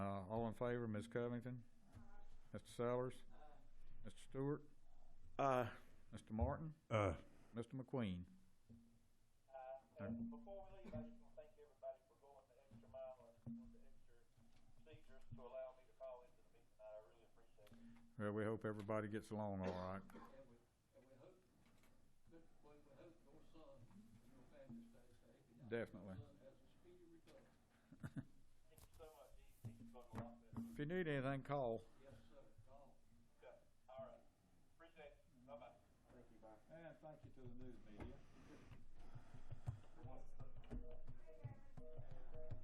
Uh, favor, Ms. Covington? Mr. Sellers? Mr. Stewart? Uh, Mr. Martin? Uh, Mr. McQueen? Uh, and before we leave, I just want to thank everybody for going the extra mile and doing the extra procedures to allow me to call into the meeting tonight. I really appreciate it. Well, we hope everybody gets along all right. And we, and we hope, that- we, we hope your son, and your family stays safe. and your Definitely. Son has a speedy recovery. Thank you so much. He, he's going a lot better. If you need anything, call.